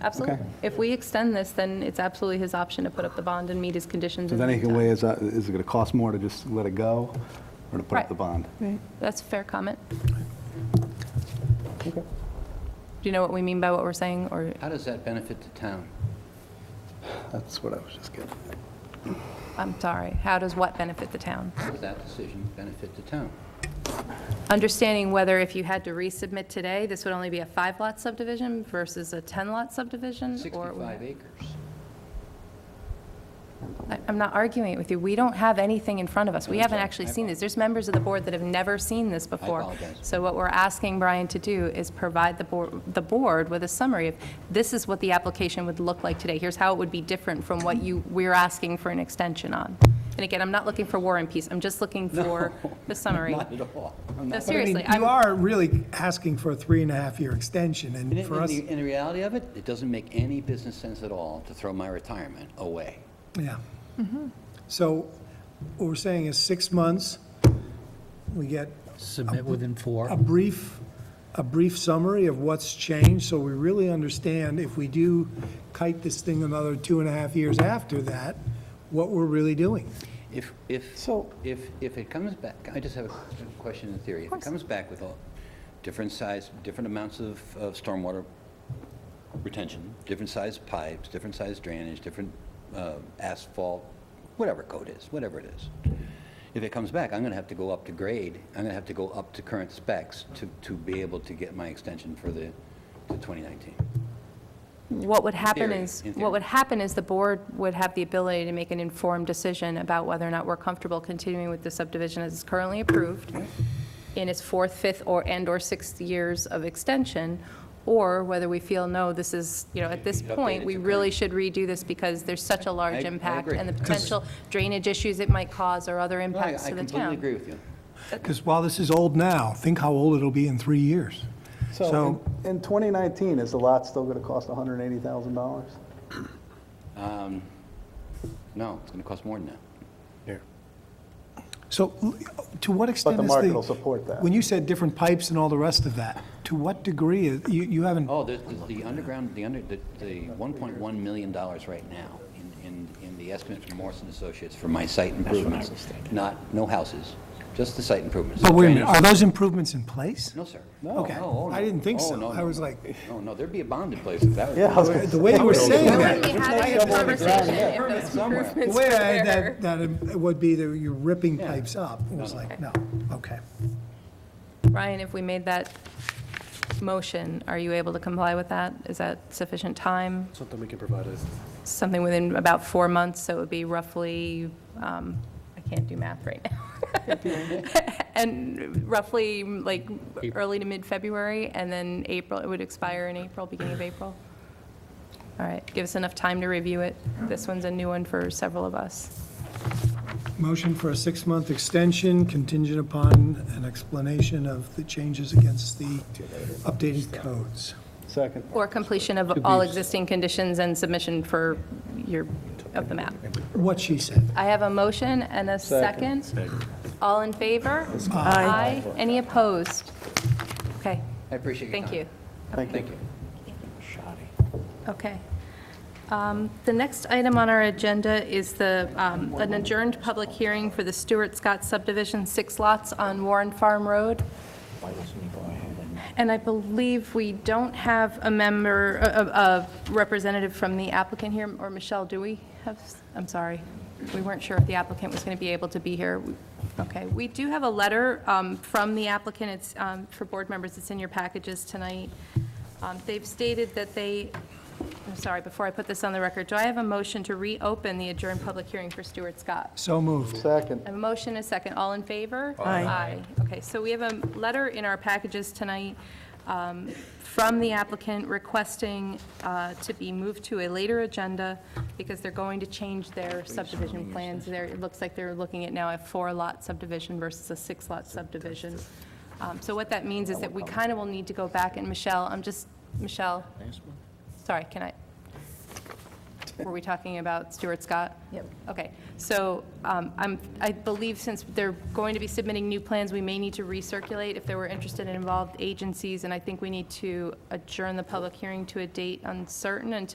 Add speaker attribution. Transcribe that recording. Speaker 1: Absolutely.
Speaker 2: Okay.
Speaker 1: If we extend this, then it's absolutely his option to put up the bond and meet his conditions.
Speaker 2: So
Speaker 1: in
Speaker 2: then
Speaker 1: the
Speaker 2: he can
Speaker 1: meantime.
Speaker 2: weigh, is that- is it going to cost more to just let it go or to put up
Speaker 1: Right.
Speaker 2: the bond?
Speaker 3: Right.
Speaker 1: That's a fair comment.
Speaker 2: Okay.
Speaker 1: Do you know what we mean by what we're saying, or
Speaker 4: How does that benefit the town?
Speaker 2: That's what I was just getting at.
Speaker 1: I'm sorry, how does what benefit the town?
Speaker 4: How does that decision benefit the town?
Speaker 1: Understanding whether if you had to resubmit today, this would only be a five-lot subdivision versus a 10-lot subdivision? or it would-
Speaker 4: 65 acres.
Speaker 1: I- I'm not arguing it with you. We don't have anything in front of us. We haven't actually seen this. There's members of the board that have never seen this before.
Speaker 4: apologize.
Speaker 1: So what we're asking Brian to do is provide the board, the board with a summary of, this is what the application would look like today. Here's how it would be different from what you, we're asking for an extension on. And again, I'm not looking for war and peace. I'm just looking for the summary.
Speaker 4: Not at all.
Speaker 1: No,
Speaker 5: But I mean,
Speaker 1: seriously, I'm,
Speaker 5: You are really asking for a three and a half year extension,
Speaker 4: In
Speaker 5: and
Speaker 4: in
Speaker 5: for us,
Speaker 4: the, in the reality of it, it doesn't make any business sense at all to throw my retirement away.
Speaker 5: yeah.
Speaker 1: Mm-hmm.
Speaker 5: So what we're saying is six months, we get
Speaker 6: Submit within
Speaker 5: a
Speaker 6: four.
Speaker 5: brief, a brief summary of what's changed, so we really understand if we do kite this thing another two and a half years after that, what we're really doing.
Speaker 4: If, if,
Speaker 3: So-
Speaker 4: if, if it comes back, I just have a question in theory. If it comes back with all different size, different amounts of, of stormwater retention, different size pipes, different size drainage, different uh, asphalt, whatever code is, whatever it is. If it comes back, I'm going to have to go up to grade, I'm going to have to go up to current specs to, to be able to get my extension for the, the 2019.
Speaker 1: what would happen
Speaker 4: Theory,
Speaker 1: is,
Speaker 4: in theory.
Speaker 1: what would happen is the board would have the ability to make an informed decision about whether or not we're comfortable continuing with the subdivision as it's currently approved in its fourth, fifth, or, and/or sixth years of extension, or whether we feel, no, this is, you know, at this
Speaker 4: Should be updated
Speaker 1: point, we
Speaker 4: to
Speaker 1: really
Speaker 4: current.
Speaker 1: should redo this because there's such a
Speaker 4: I- I
Speaker 1: large impact
Speaker 4: agree.
Speaker 1: and the potential drainage issues it might cause or other
Speaker 4: No, I I
Speaker 1: impacts to the
Speaker 4: completely agree
Speaker 1: town.
Speaker 4: with you.
Speaker 5: Because while this is old now, think how old it'll be in three years.
Speaker 2: So in in 2019, is the lot still going to cost $180,000?
Speaker 4: No, it's going to cost more than that.
Speaker 5: So l- to what extent is the...
Speaker 2: market will support that.
Speaker 5: When you said different pipes and all the rest of that, to what degree, is- you you haven't,
Speaker 4: Oh, there's, there's the underground, the under, the, the one point one million dollars right now in, in, in the estimate from Morrison Associates for my site improvements. Not, no houses, just the site improvements.
Speaker 5: but wait a minute, are those improvements in place?
Speaker 4: No, sir.
Speaker 5: Okay.
Speaker 4: No, oh,
Speaker 5: I didn't think
Speaker 4: no. Oh,
Speaker 5: so.
Speaker 4: no,
Speaker 5: I
Speaker 4: no,
Speaker 5: was
Speaker 4: no.
Speaker 5: like-
Speaker 4: No, no, there'd be a bond in place if that was.
Speaker 2: Yeah, I was gonna
Speaker 5: The way you were saying
Speaker 1: Why
Speaker 5: that,
Speaker 1: wouldn't you have this conversation if those
Speaker 5: the
Speaker 1: improvements
Speaker 5: way
Speaker 1: were
Speaker 5: I,
Speaker 1: there?
Speaker 5: that, that it would be that you're ripping pipes up, it was like, no, okay.
Speaker 1: Ryan, if we made that motion, are you able to comply with that? Is that sufficient time?
Speaker 7: Something we can provide us.
Speaker 1: Something within about four months, so it would be roughly, um, I can't do math right now. And roughly, like, early to mid-February, and then April, it would expire in April, beginning of April? All right, give us enough time to review it. This one's a new one for several of us.
Speaker 5: Motion for a six-month extension contingent upon an explanation of the changes against the updated codes.
Speaker 2: Second.
Speaker 1: Or completion of all existing conditions and submission for your, of the map.
Speaker 5: What she said.
Speaker 1: I have a motion and a second. All in favor?
Speaker 3: Aye.
Speaker 1: Any opposed? Okay,
Speaker 4: I appreciate your time.
Speaker 1: thank you.
Speaker 4: Thank you.
Speaker 1: Okay. Um, The next item on our agenda is the, um, an adjourned public hearing for the Stewart Scott subdivision, six lots on Warren Farm Road. And I believe we don't have a member, a- a a representative from the applicant here, or Michelle, do we have, I'm sorry, we weren't sure if the applicant was going to be able to be here. We- Okay, we do have a letter um, from the applicant, it's um, for board members, it's in your packages tonight. Um, They've stated that they, I'm sorry, before I put this on the record, do I have a motion to reopen the adjourned public hearing for Stuart Scott?
Speaker 5: So moved.
Speaker 2: Second.
Speaker 1: A motion, a second, all in favor?
Speaker 3: Aye.
Speaker 1: Okay, so we have a letter in our packages tonight um, from the applicant requesting uh, to be moved to a later agenda because they're going to change their subdivision plans. There, it looks like they're looking at now a four-lot subdivision versus a six-lot subdivision. Um, So what that means is that we kind of will need to go back, and Michelle, I'm just, Michelle, sorry, can I? Were we talking about Stuart Scott?
Speaker 3: Yep.
Speaker 1: Okay, so um, I'm, I believe since they're going to be submitting new plans, we may need to recirculate if there were interested and involved agencies, and I think we need to adjourn the public hearing to a date uncertain until